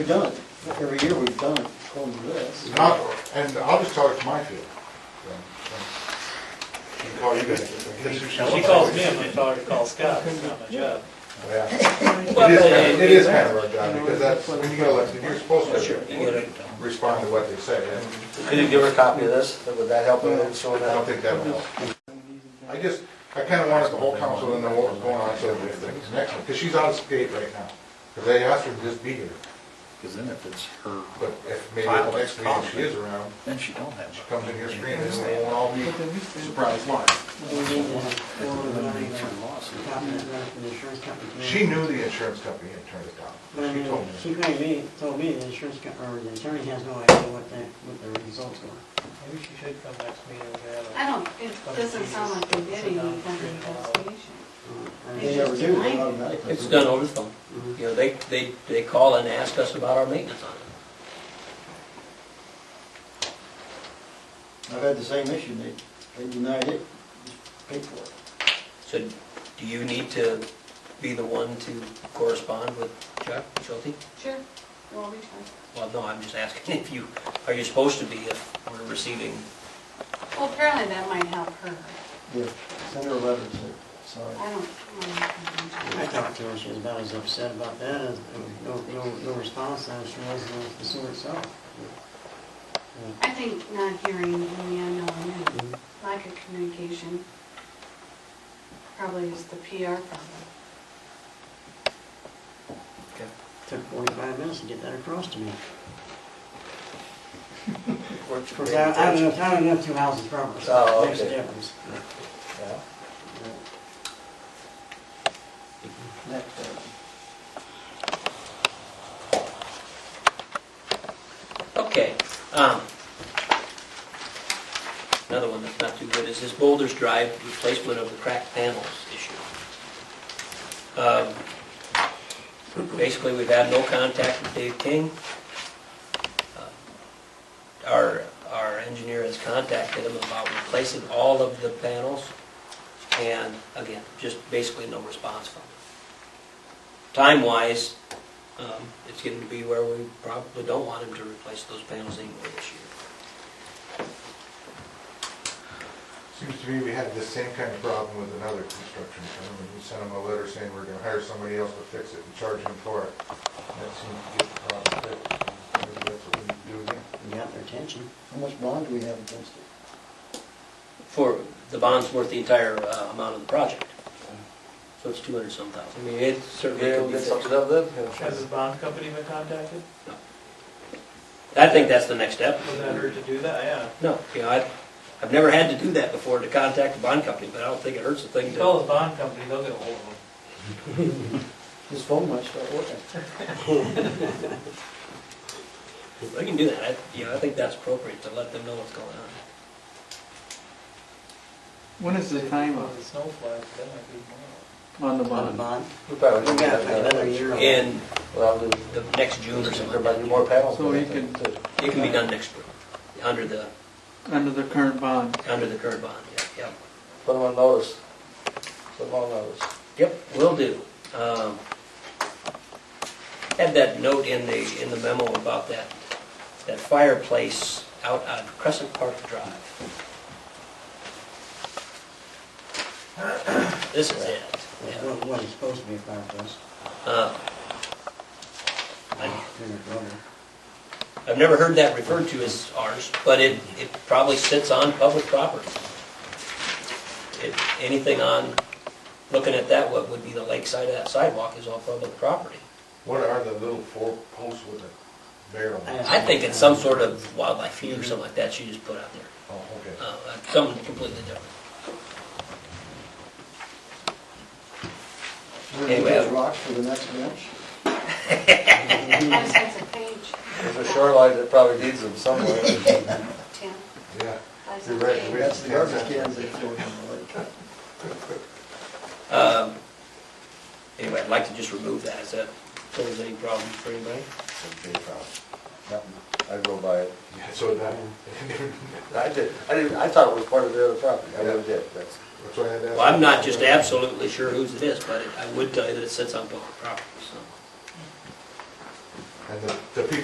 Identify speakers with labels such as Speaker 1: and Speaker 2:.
Speaker 1: We've done it. Every year we've done it, according to this.
Speaker 2: Not, and I'll just tell it to my field. You can call you guys.
Speaker 3: She calls me, and my daughter calls Scott, it's not my
Speaker 2: Yeah.
Speaker 3: job.
Speaker 2: It is, kind- it is kind of our job, because that's, when you get elected, you're supposed to respond to what they say, and
Speaker 4: Could you give her a copy of this? Would that help in
Speaker 2: I
Speaker 4: showing
Speaker 2: don't
Speaker 4: that?
Speaker 2: think that will help. I just, I kind of wanted the whole council to know what was going on, so if things next, because she's out of state right now, because they asked her to just be here,
Speaker 5: Because then if it's her,
Speaker 2: but if maybe the next meeting she is around,
Speaker 5: then she don't have.
Speaker 2: she comes in here screaming, and they won't all be surprised why. She knew the insurance company had turned it down,
Speaker 5: Mm-hmm.
Speaker 2: she told
Speaker 6: She
Speaker 2: me.
Speaker 6: made me, told me the insurance company, or the attorney has no idea what the, what the results were.
Speaker 3: Maybe she should come next meeting and
Speaker 7: I
Speaker 3: have
Speaker 7: don't, it doesn't sound like they're getting any kind of investigation.
Speaker 6: Uh,
Speaker 1: They
Speaker 6: and-
Speaker 1: never do it automatically.
Speaker 4: It's done over the phone. You know, they, they, they call and ask us about our maintenance on it.
Speaker 1: I've had the same issue. They, they denied it, paid for it.
Speaker 4: So do you need to be the one to correspond with Chuck Schulte?
Speaker 7: Sure, we'll reach out.
Speaker 4: Well, no, I'm just asking if you, are you supposed to be if we're receiving?
Speaker 7: Well, apparently that might help her.
Speaker 1: Yeah, send her a letter and say, sorry.
Speaker 7: I don't. I
Speaker 6: I
Speaker 7: don't know.
Speaker 6: talked to her, she was about as upset about that, as, as no, no, no response as she was with the sewer itself.
Speaker 7: I think not hearing in the unknown and lack of communication probably is the PR problem.
Speaker 6: Took forty-five minutes to get that across to me. Of course, I, I don't know, I don't know two houses proper, so
Speaker 4: Oh,
Speaker 6: it makes a
Speaker 4: okay.
Speaker 6: difference.
Speaker 1: Next time.
Speaker 4: Okay. um, Another one that's not too good is this Boulders Drive replacement of the cracked panels issue. Um, Basically, we've had no contact with Dave King. Uh, Our, our engineer has contacted him about replacing all of the panels, and again, just basically no response from him. Time-wise, um, it's getting to be where we probably don't want him to replace those panels anymore this year.
Speaker 2: Seems to me we had the same kind of problem with another construction firm, and we sent them a letter saying we're gonna hire somebody else to fix it and charge them for it. That seemed to get the problem fixed, maybe that's what we need to do again.
Speaker 6: You got their attention.
Speaker 1: How much bond do we have against it?
Speaker 4: For, the bond's worth the entire uh, amount of the project. So it's two hundred some thousand. I mean, it certainly could be fixed.
Speaker 5: of them.
Speaker 3: her. Has his bond company been contacted?
Speaker 4: I think that's the next step.
Speaker 3: Was that her to do that? Yeah.
Speaker 4: No, you know, I, I've never had to do that before, to contact the bond company, but I don't think it hurts a thing
Speaker 3: You
Speaker 4: to.
Speaker 3: call his bond company, they'll get ahold of him.
Speaker 1: His phone might start working.
Speaker 4: We can do that. I, you know, I think that's appropriate to let them know what's going on.
Speaker 8: When is the time
Speaker 3: Well, The snow flies, that might be tomorrow.
Speaker 8: on the
Speaker 6: On the bond,
Speaker 8: bond?
Speaker 4: We
Speaker 6: we got another year on it.
Speaker 4: In, well, the, the next June or something. like that.
Speaker 5: panels.
Speaker 8: So he can,
Speaker 4: It can be done next spring, under the,
Speaker 8: under the current bond,
Speaker 4: under the current bond, yeah, yeah.
Speaker 5: Put them on notice. Put them on notice.
Speaker 4: Yep, will do. Um, Had that note in the, in the memo about that, that fireplace out on Crescent Park Drive. This is it.
Speaker 6: That's what, what it's supposed to be about this.
Speaker 4: Uh, I-
Speaker 6: Turn it over.
Speaker 4: I've never heard that referred to as ours, but it, it probably sits on public property. It- Anything on, looking at that, what would be the lakeside of that sidewalk is all public property.
Speaker 2: What are the little four posts with a barrel?
Speaker 6: I-
Speaker 4: I think it's some sort of wildlife feed or something like that you just put out there,
Speaker 2: Oh, okay.
Speaker 4: Uh, something completely different.
Speaker 1: We're gonna
Speaker 4: Anyway.
Speaker 1: use rocks for the next bench.
Speaker 7: I just have to page
Speaker 5: There's a shoreline that probably needs them somewhere.
Speaker 7: ten.
Speaker 2: Yeah,
Speaker 7: I just
Speaker 2: You're
Speaker 7: have to
Speaker 2: right,
Speaker 7: page.
Speaker 2: we have-
Speaker 1: That's the garbage cans they throw in the lake.
Speaker 4: Um, Anyway, I'd like to just remove that, is that, pose any problem for anybody?
Speaker 5: It's a big problem. I go by it.
Speaker 2: Yeah, so that,
Speaker 5: I did, I didn't, I thought it was part of the other property. I never did, that's.
Speaker 2: that's why I had to ask.
Speaker 4: Well, I'm not just absolutely sure whose it is, but it- I would tell you that it sits on public property, so.
Speaker 2: And the, the people